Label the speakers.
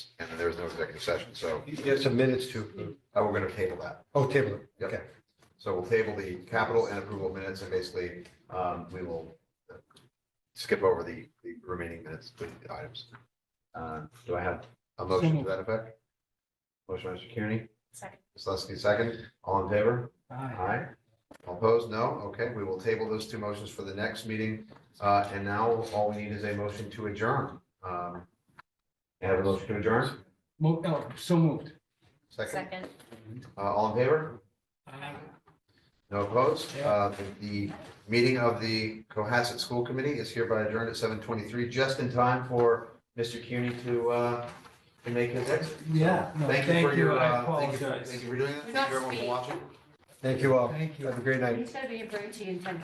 Speaker 1: and then there was no executive session, so
Speaker 2: There's some minutes to approve.
Speaker 1: uh, we're gonna table that.
Speaker 2: Oh, table it.
Speaker 1: Yep.
Speaker 2: Okay.
Speaker 1: So we'll table the capital and approval of minutes, and basically, um, we will uh, skip over the, the remaining minutes, with the items. Uh, do I have a motion to that effect? Motion, by Mr. Kearney,
Speaker 3: Second.
Speaker 1: Ms. Leskey, second, all in favor? Aye. All Opposed? No? Okay, we will table those two motions for the next meeting. Uh, and now all we need is a motion to adjourn. Um, may I have a motion to adjourn?
Speaker 4: Mo- oh, so moved.
Speaker 1: Second,
Speaker 3: Second.
Speaker 1: uh, all in favor?
Speaker 4: Uh,
Speaker 1: No opposed? Uh, the- the meeting of the Cohasset School Committee is hereby adjourned at seven twenty-three, just in time for Mr. Cuny to, uh, to make his exit.
Speaker 4: Yeah, no,
Speaker 1: Thank you for your,
Speaker 4: I
Speaker 1: uh, thank you,
Speaker 4: apologize.
Speaker 1: thank you for doing that.
Speaker 3: We're
Speaker 1: Thank you
Speaker 3: not
Speaker 1: everyone for
Speaker 3: speaking.
Speaker 1: watching.
Speaker 2: Thank you all.
Speaker 4: Thank you.
Speaker 2: Have a great night.
Speaker 3: He's gonna be a brute to you in ten